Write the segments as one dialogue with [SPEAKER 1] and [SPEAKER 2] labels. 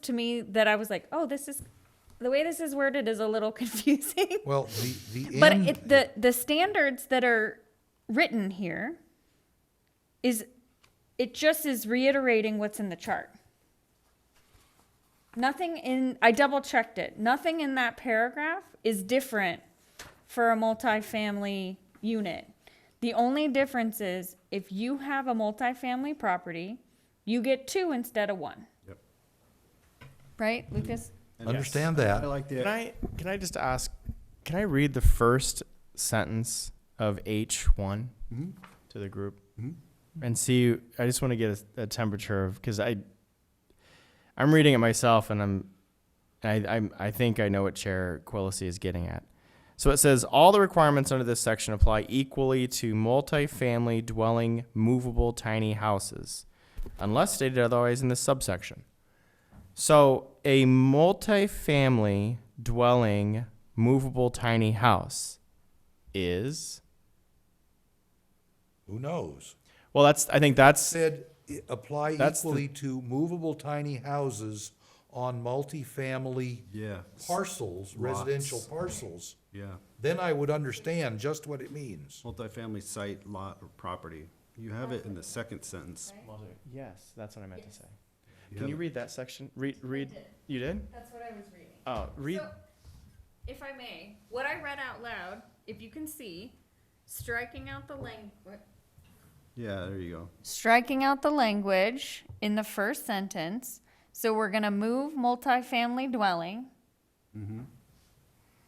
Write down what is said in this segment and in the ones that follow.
[SPEAKER 1] to me that I was like, oh, this is the way this is worded is a little confusing.
[SPEAKER 2] Well, the, the
[SPEAKER 1] but
[SPEAKER 2] end,
[SPEAKER 1] it, the the standards that are written here is it just is reiterating what's in the chart. Nothing in I double checked it. Nothing in that paragraph is different for a multifamily unit. The only difference is if you have a multifamily property, you get two instead of one.
[SPEAKER 3] Yep.
[SPEAKER 1] Right, Lucas?
[SPEAKER 2] understand that.
[SPEAKER 4] I like
[SPEAKER 5] Can
[SPEAKER 4] the,
[SPEAKER 5] I can I just ask? Can I read the first sentence of H one to the group and see? I just want to get a, a temperature of because I I'm reading it myself and I'm and I I'm, I think I know what Chair Quillisi is getting at. So it says all the requirements under this section apply equally to multifamily dwelling movable tiny houses, unless stated otherwise in this subsection. So a multifamily dwelling movable tiny house is
[SPEAKER 2] Who knows?
[SPEAKER 5] well that's I think that's
[SPEAKER 2] Said, i- apply
[SPEAKER 5] That's the-
[SPEAKER 2] equally to movable tiny houses on multifamily
[SPEAKER 3] Yeah,
[SPEAKER 2] parcels, residential
[SPEAKER 3] Lots.
[SPEAKER 2] parcels.
[SPEAKER 3] yeah.
[SPEAKER 2] Then I would understand just what it means.
[SPEAKER 3] Multifamily site, lot, or property. You have it in the second sentence.
[SPEAKER 5] yes, that's what I meant to say.
[SPEAKER 3] You
[SPEAKER 5] Can
[SPEAKER 3] have
[SPEAKER 5] you
[SPEAKER 3] it-
[SPEAKER 5] read that section? Read read you did?
[SPEAKER 1] That's what I was reading.
[SPEAKER 5] Oh, read
[SPEAKER 1] So, if I may, what I read out loud, if you can see, striking out the language.
[SPEAKER 3] Yeah, there you go.
[SPEAKER 1] Striking out the language in the first sentence. So we're gonna move multifamily dwelling.
[SPEAKER 3] Mm-hmm.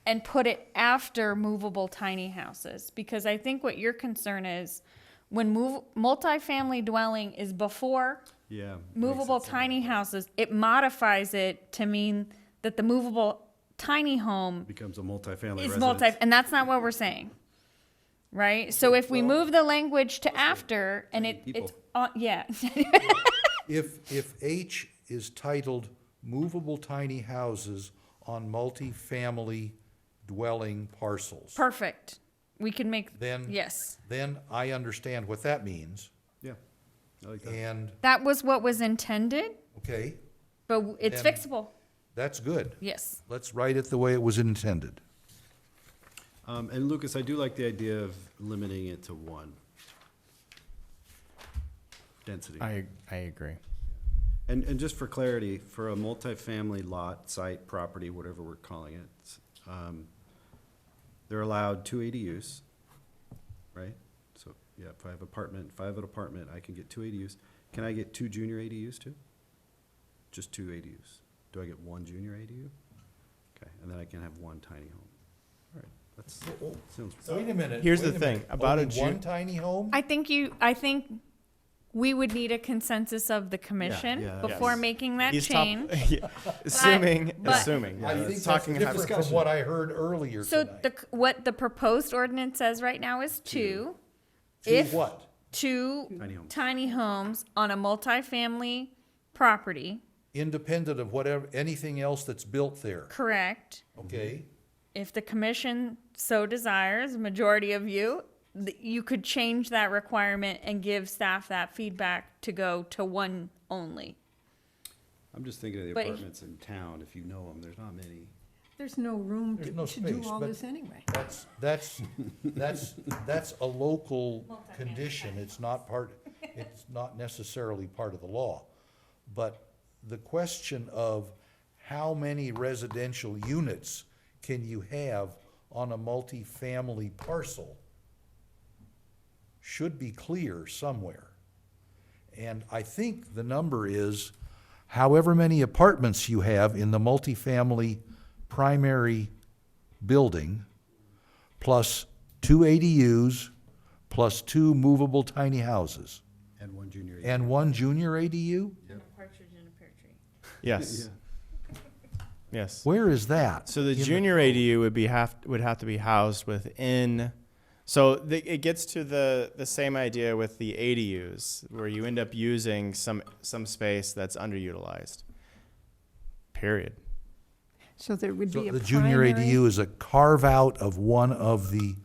[SPEAKER 1] And put it after movable tiny houses, because I think what your concern is, when move, multifamily dwelling is before
[SPEAKER 3] Yeah. makes it
[SPEAKER 1] movable
[SPEAKER 3] sound-
[SPEAKER 1] tiny houses, it modifies it to mean that the movable tiny home
[SPEAKER 3] Becomes a multifamily
[SPEAKER 1] is
[SPEAKER 3] residence.
[SPEAKER 1] multi, and that's not what we're saying, right? So if we move the language to after, and it,
[SPEAKER 3] people.
[SPEAKER 1] it's, on- yeah,
[SPEAKER 2] If, if H is titled movable tiny houses on multifamily dwelling parcels,
[SPEAKER 1] perfect. We can make,
[SPEAKER 2] then.
[SPEAKER 1] yes.
[SPEAKER 2] Then I understand what that means
[SPEAKER 3] Yeah. I like that.
[SPEAKER 2] and,
[SPEAKER 1] That was what was intended,
[SPEAKER 2] okay,
[SPEAKER 1] but w- it's
[SPEAKER 2] Then-
[SPEAKER 1] fixable,
[SPEAKER 2] that's good.
[SPEAKER 1] yes.
[SPEAKER 2] Let's write it the way it was intended.
[SPEAKER 3] Um, and Lucas, I do like the idea of limiting it to one. Density.
[SPEAKER 5] I I agree.
[SPEAKER 3] And, and just for clarity, for a multifamily lot, site, property, whatever we're calling it, um, they're allowed two ADUs, right? So, yeah, if I have apartment, if I have an apartment, I can get two ADUs. Can I get two junior ADUs too? Just two ADUs? Do I get one junior ADU? Okay, and then I can have one tiny home. All right, that's, sounds,
[SPEAKER 2] Wait a minute.
[SPEAKER 5] Here's the
[SPEAKER 2] wait a minute.
[SPEAKER 5] thing, about a
[SPEAKER 2] Only
[SPEAKER 5] ju-
[SPEAKER 2] One tiny home?
[SPEAKER 1] I think you, I think we would need a consensus of the commission
[SPEAKER 3] yeah,
[SPEAKER 1] before
[SPEAKER 3] yes.
[SPEAKER 1] making that
[SPEAKER 5] He's top-
[SPEAKER 1] change.
[SPEAKER 5] Yeah. assuming
[SPEAKER 1] but-
[SPEAKER 5] assuming
[SPEAKER 2] I
[SPEAKER 5] yeah,
[SPEAKER 2] think that's
[SPEAKER 5] it's talking about
[SPEAKER 2] different from what I heard earlier
[SPEAKER 1] So
[SPEAKER 2] tonight.
[SPEAKER 1] the, c- what the proposed ordinance says right now is two.
[SPEAKER 2] To
[SPEAKER 1] if-
[SPEAKER 2] what?
[SPEAKER 3] Tiny
[SPEAKER 1] Two
[SPEAKER 3] homes.
[SPEAKER 1] tiny homes on a multifamily property,
[SPEAKER 2] Independent of whatever, anything else that's built there,
[SPEAKER 1] correct?
[SPEAKER 2] okay?
[SPEAKER 1] If the commission so desires, majority of you, th- you could change that requirement and give staff that feedback to go to one only.
[SPEAKER 3] I'm just thinking of the
[SPEAKER 1] But-
[SPEAKER 3] apartments in town, if you know them, there's not many.
[SPEAKER 6] There's no room
[SPEAKER 2] There's no
[SPEAKER 6] to, to do
[SPEAKER 2] space,
[SPEAKER 6] all
[SPEAKER 2] but-
[SPEAKER 6] this anyway.
[SPEAKER 2] That's, that's, that's, that's a local condition, it's not part, it's not necessarily part of the law. But the question of how many residential units can you have on a multifamily parcel should be clear somewhere. And I think the number is however many apartments you have in the multifamily primary building, plus two ADUs, plus two movable tiny houses,
[SPEAKER 3] And one junior ADU.
[SPEAKER 2] and one junior ADU?
[SPEAKER 1] Partridge in a pear tree.
[SPEAKER 5] yes. Yes.
[SPEAKER 2] Where is that?
[SPEAKER 5] So the junior ADU would be have would have to be housed within. So the, it gets to the the same idea with the ADUs, where you end up using some some space that's underutilized. Period.
[SPEAKER 6] So there would
[SPEAKER 2] So
[SPEAKER 6] be a
[SPEAKER 2] The junior
[SPEAKER 6] primary,
[SPEAKER 2] ADU is a carve-out of one of the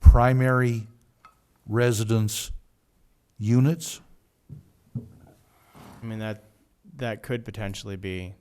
[SPEAKER 2] primary residence units?
[SPEAKER 5] I mean that that could potentially be